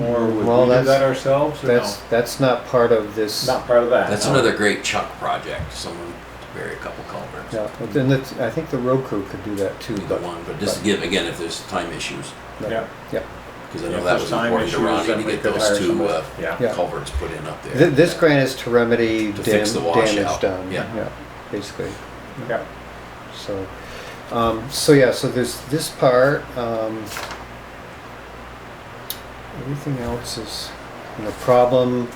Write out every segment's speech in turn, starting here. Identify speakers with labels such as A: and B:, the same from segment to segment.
A: or would
B: Well,
A: we do
B: that's-
A: that ourselves or no?
B: That's, that's not part of this.
A: Not part of that.
C: That's
A: no.
C: another great Chuck project, someone to bury a couple culverts.
B: No, but then it's, I think the road crew could do that too,
C: Either
B: but,
C: one, but just to give, again, if there's time issues,
B: but-
A: Yeah.
B: yeah.
C: because I
A: If
C: know that
A: there's
C: was
A: time
C: important to
A: issues,
C: Ronnie
A: then
C: to
A: we
C: get
A: could
C: those
A: hire
C: two
A: somebody.
C: uh,
A: Yeah,
B: Yeah.
C: culverts put in up
B: Th-
C: there.
B: This grant is to remedy
C: To
B: dam-
C: fix the
B: damage
C: washout,
B: done,
C: yeah.
B: yeah, basically,
A: yeah.
B: so. Um, so yeah, so there's this part, um, everything else is, you know, problem.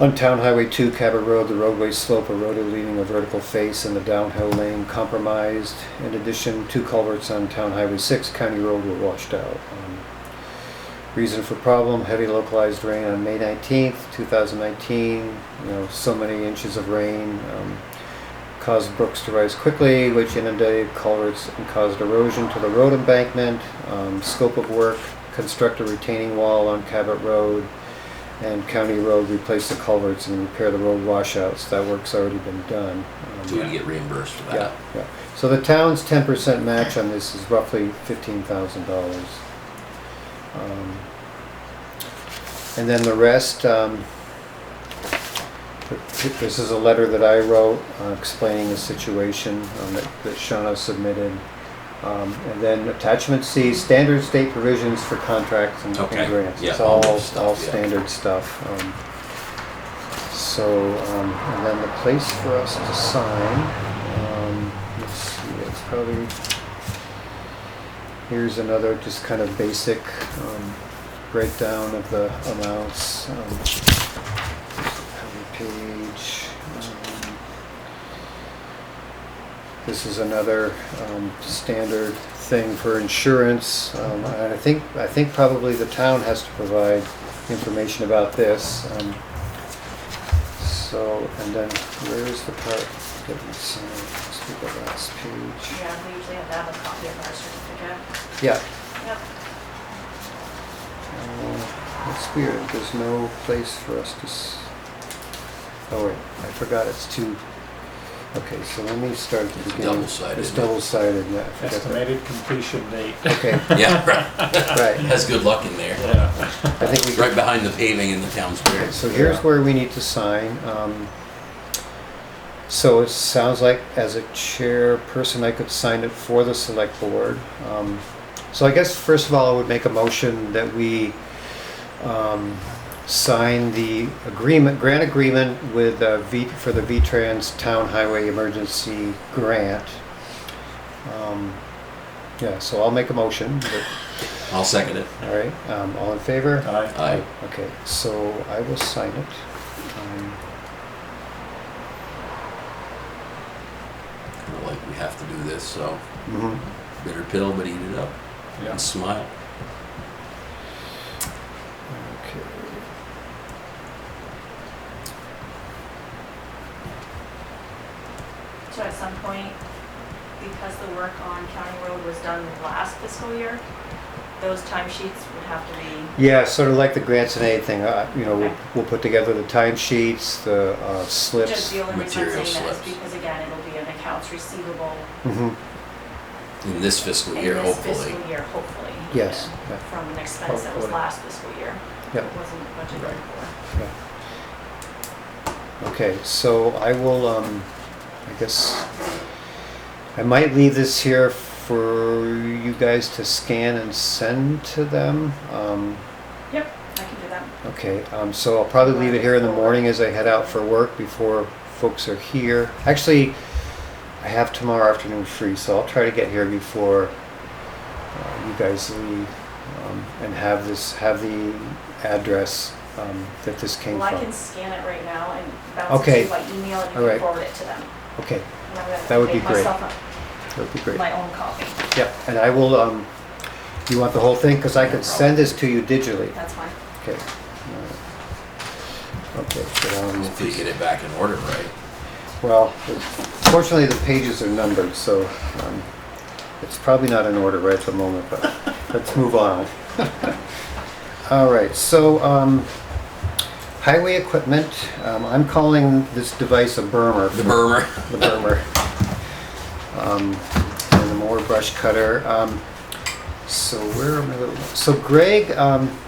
B: On Town Highway two, Cabot Road, the roadway slope eroded leaving a vertical face and the downhill lane compromised. In addition, two culverts on Town Highway six, County Road were washed out. Um, Reason for problem, heavy localized rain on May nineteenth, two thousand nineteen, you know, so many inches of rain, um, caused brooks to rise quickly, which inundated culverts and caused erosion to the road embankment. Um, scope of work, construct a retaining wall on Cabot Road and County Road, replace the culverts and repair the road washouts. That work's already been done. Um,
C: So we get reimbursed for
B: yeah,
C: that.
B: yeah. So the town's ten percent match on this is roughly fifteen thousand dollars. Um, And then the rest, um, th- this is a letter that I wrote uh, explaining the situation um, that that Shawna submitted. Um, and then attachment C, standard state provisions for contracts and and
C: Okay,
B: grants.
C: yeah,
B: It's
C: all
B: all,
C: that stuff,
B: all
C: yeah.
B: standard stuff. um. So, um, and then the place for us to sign, um, let's see, it's probably, here's another just kind of basic, um, breakdown of the amounts. um, Cover page. um, This is another, um, standard thing for insurance. Um, and I think, I think probably the town has to provide information about this. um, so, and then where is the part that we signed? Let's do the last page.
D: Yeah, we usually have to have a copy of our certificate.
B: Yeah.
D: Yep.
B: uh, It's weird, there's no place for us to, s- oh wait, I forgot, it's two. Okay, so let me start at the
C: It's
B: beginning.
C: double-sided,
B: It's
C: isn't it?
B: double-sided, yeah. I forgot that.
A: Estimated completion date.
B: Okay,
C: Yeah, right.
B: right.
C: That's good luck in there.
A: Yeah.
B: I think we
C: Right behind the paving in the town square.
B: So here's
A: Yeah.
B: where we need to sign. Um, So it sounds like as a chairperson, I could sign it for the select board. Um, So I guess first of all, I would make a motion that we um, sign the agreement, grant agreement with uh, V, for the V-Trans Town Highway Emergency Grant. Um, Yeah, so I'll make a motion. but-
C: I'll second it.
B: All right, um, all in favor?
A: Aye.
C: Aye.
B: Okay, so I will sign it. Um,
C: Kinda Like, we have to do this, so bitter pill, but eat it up
A: Yeah.
C: and smile.
B: Okay.
D: So at some point, because the work on County Road was done last fiscal year, those timesheets would have to be,
B: Yeah, sort of like the grants and aid thing, uh, you know, we'll,
D: Okay.
B: we'll put together the timesheets, the uh,
D: just
B: slips.
D: the only reason I'm
C: Material
D: saying that is
C: slips.
D: because again, it'll be an accounts receivable
B: Mhm,
C: In this fiscal
D: in
C: year,
D: this
C: hopefully.
D: fiscal year, hopefully.
B: Yes,
D: even,
B: yeah.
D: From an expense that was
A: Hopefully.
D: last fiscal year.
B: Yep.
D: It wasn't budgeted
C: Right.
D: for.
B: Okay, so I will, um, I guess, I might leave this here for you guys to scan and send to them. Um,
D: Yep, I can do that.
B: Okay, um, so I'll probably leave it here in the morning as I head out for work before folks are here. Actually, I have tomorrow afternoon free, so I'll try to get here before uh, you guys leave um, and have this, have the address um, that this came
D: Well, I can
B: from.
D: scan it right now and bounce it to
B: Okay.
D: you by email
B: All
D: and you can
B: right.
D: forward it to them.
B: Okay,
D: And I'm gonna
B: That would be
D: make
B: great.
D: myself a-
B: that would be great.
D: my own copy.
B: Yep, and I will, um, you want the whole thing? Because I could send this to you digitally.
D: That's fine.
B: Okay. All right. Okay, so, um,
C: Hopefully get it back in order, right?
B: Well, fortunately, the pages are numbered, so um, it's probably not in order right at the moment, but let's move on. All right, so um, highway equipment, um, I'm calling this device a bermer.
C: The murmur.
B: The bermer. Um, And the mower brush cutter. Um, So where am I? So Greg, um,